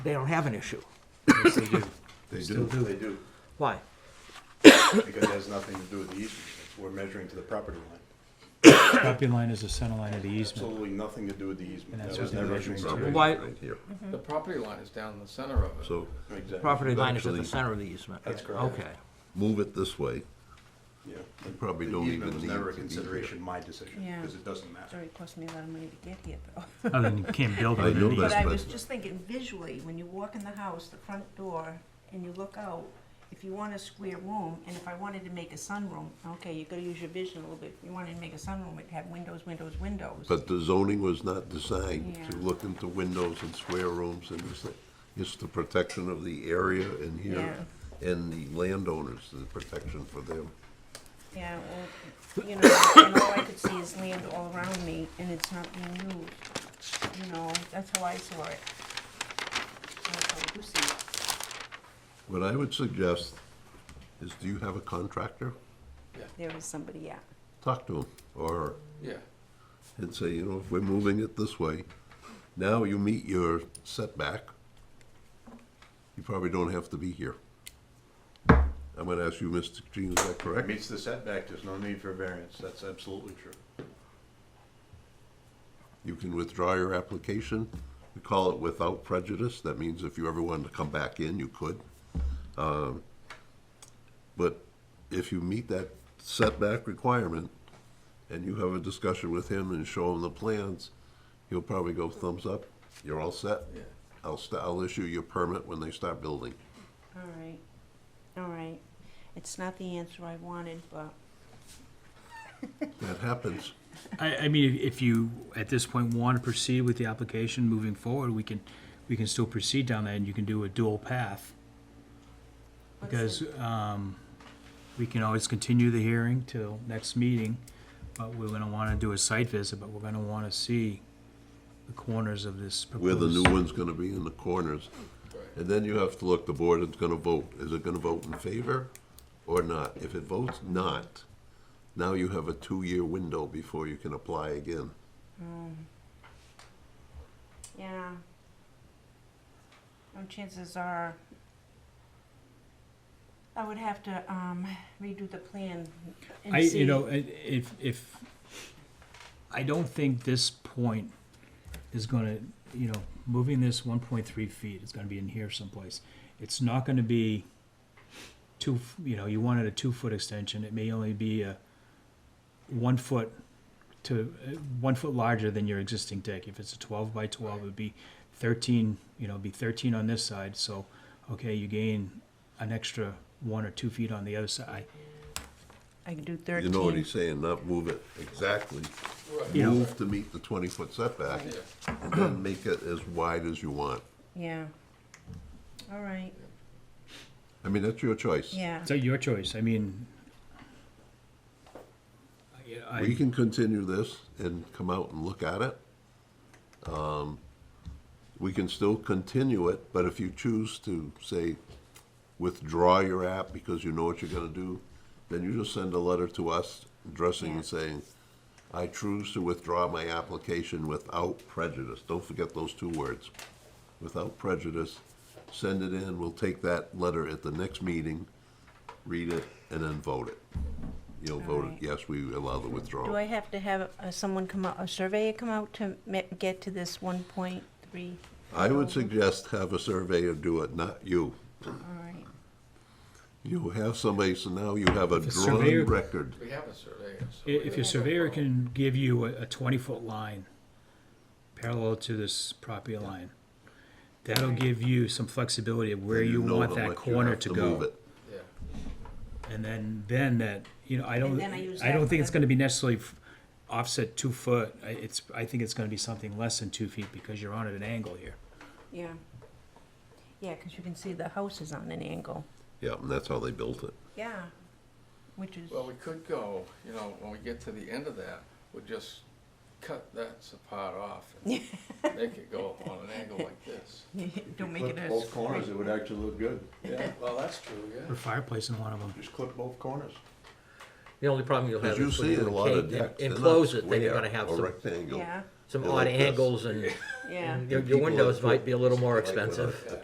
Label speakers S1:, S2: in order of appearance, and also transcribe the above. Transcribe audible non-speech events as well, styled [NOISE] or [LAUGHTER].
S1: they don't have an issue.
S2: Yes, they do.
S3: [LAUGHS] They
S2: Still
S3: do,
S2: do.
S4: They do,
S1: Why?
S4: because it has nothing to do with the easement. We're measuring to the property line.
S2: Property line is the center line of the easement.
S4: Absolutely nothing to do with the easement.
S2: And that's
S4: That was
S2: what
S4: never
S2: they're
S4: an
S2: measuring
S4: easement.
S3: Property
S1: Why-
S3: line here,
S5: The property line is down the center of it.
S3: so
S4: Exactly.
S1: Property line is at the
S3: Actually-
S1: center of the easement.
S4: That's correct.
S1: Okay.
S3: move it this way,
S4: Yeah.
S3: probably
S4: The
S3: don't
S4: easement
S3: even
S4: was
S3: need
S4: never a
S3: to be here.
S4: consideration, my decision,
S6: Yeah.
S4: because it doesn't
S6: It's
S4: matter.
S6: already cost me a lot of money to get here, though.
S2: Other than you can't build
S3: I
S2: on
S3: know that.
S2: an
S6: But
S2: easement.
S6: I
S3: but-
S6: was just thinking visually, when you walk in the house, the front door, and you look out, if you want a square room, and if I wanted to make a sunroom, okay, you gotta use your vision a little bit. If you wanted to make a sunroom, it'd have windows, windows, windows.
S3: but the zoning was not designed to
S6: Yeah.
S3: look into windows and square rooms and this thing. It's the protection of the area and here, and the landowners, the protection for them.
S6: Yeah, well, you know, and all I could see is land all around me, and it's not being used. You know, that's how I saw it. That's how I do see it.
S3: What I would suggest is, do you have a contractor?
S6: There is somebody, yeah.
S3: Talk to him, or
S5: Yeah,
S3: and say, you know, if we're moving it this way, now you meet your setback, you probably don't have to be here. I'm gonna ask you, Mr. Jean, is that
S4: It
S3: correct?
S4: meets the setback, there's no need for variance, that's absolutely true.
S3: You can withdraw your application. We call it without prejudice. That means if you ever wanted to come back in, you could. Um, But if you meet that setback requirement and you have a discussion with him and show him the plans, he'll probably go thumbs up. You're all set.
S5: yeah.
S3: I'll, st- I'll issue your permit when they start building.
S6: All right, all right. It's not the answer I wanted, but
S3: That happens.
S2: I, I mean, if- if you, at this point, want to proceed with the application moving forward, we can, we can still proceed down that, and you can do a dual path.
S6: What's
S2: Because, um, we can always continue the hearing till next meeting, but we're gonna wanna do a site visit, but we're gonna wanna see the corners of this
S3: Where
S2: proposed.
S3: the new one's gonna be in the corners. And then you have to look, the board is gonna vote. Is it gonna vote in favor or not? If it votes not, now you have a two-year window before you can apply again.
S6: Mm. yeah. No chances are, I would have to um, redo the plan
S2: I,
S6: and see.
S2: you know, i- if, if, I don't think this point is gonna, you know, moving this one point three feet is gonna be in here someplace. It's not gonna be two, f- you know, you wanted a two-foot extension, it may only be a one foot to, uh, one foot larger than your existing deck. If it's a twelve by twelve, it'd be thirteen, you know, it'd be thirteen on this side, so, okay, you gain an extra one or two feet on the other side.
S6: I could do
S3: You know what
S6: thirteen.
S3: he's saying, not move it exactly.
S2: Yeah.
S3: Move to meet the twenty-foot setback,
S5: Yeah.
S3: and then make it as wide as you want.
S6: Yeah. All right,
S3: I mean, that's your choice.
S6: yeah.
S2: So your choice. I mean, I,
S3: We
S2: I,
S3: can continue this and come out and look at it. Um, We can still continue it, but if you choose to, say, withdraw your app because you know what you're gonna do, then you just send a letter to us addressing and
S6: Yeah.
S3: saying, I choose to withdraw my application without prejudice. Don't forget those two words. Without prejudice, send it in, we'll take that letter at the next meeting, read it, and then vote it. You'll vote it,
S6: Alright.
S3: yes, we allow the withdrawal.
S6: Do I have to have uh, someone come out, a surveyor come out to me- get to this one point three?
S3: I would suggest have a surveyor do it, not you.
S6: All right,
S3: You have somebody, so now you have a
S2: If a
S3: drawn
S2: surveyor-
S3: record.
S5: We have a surveyor. so we
S2: if your
S5: don't-
S2: surveyor can give you a, a twenty-foot line parallel to this property line, that'll give you some flexibility of where
S3: and
S2: you
S3: know
S2: want
S3: how
S2: that
S3: much you
S2: corner
S3: have
S2: to
S3: move
S2: go.
S3: it.
S5: Yeah,
S2: And then, then that, you know, I don't,
S6: then I use
S2: I don't
S6: that
S2: think it's
S6: for-
S2: gonna be necessarily f- offset two foot. I, it's, I think it's gonna be something less than two feet because you're on at an angle here.
S6: yeah. Yeah, because you can see the house is on an angle.
S3: Yeah, and that's how they built it.
S6: Yeah, which is,
S5: well, we could go, you know, when we get to the end of that, we'll just cut that s- part off and make it go on an angle like this.
S6: [LAUGHS] don't make it
S4: Clip
S6: a.
S4: Both corners, it would actually look good.
S5: Yeah, well, that's true,
S2: Put a fireplace in one of them.
S4: Just clip both corners.
S1: The only problem you'll have
S3: As you
S1: is when
S3: see
S1: you
S3: in a lot of
S1: encase,
S3: decks. they're not
S1: enclose it, then you're
S3: square
S1: gonna have
S3: or
S1: some,
S3: rectangle.
S6: Yeah,
S1: some
S3: Yeah,
S1: odd
S3: like this.
S1: angles and
S6: yeah.
S1: and your, your
S3: People
S1: windows
S3: have- [LAUGHS]
S1: might be a little more
S3: Like with a-
S1: expensive.
S3: a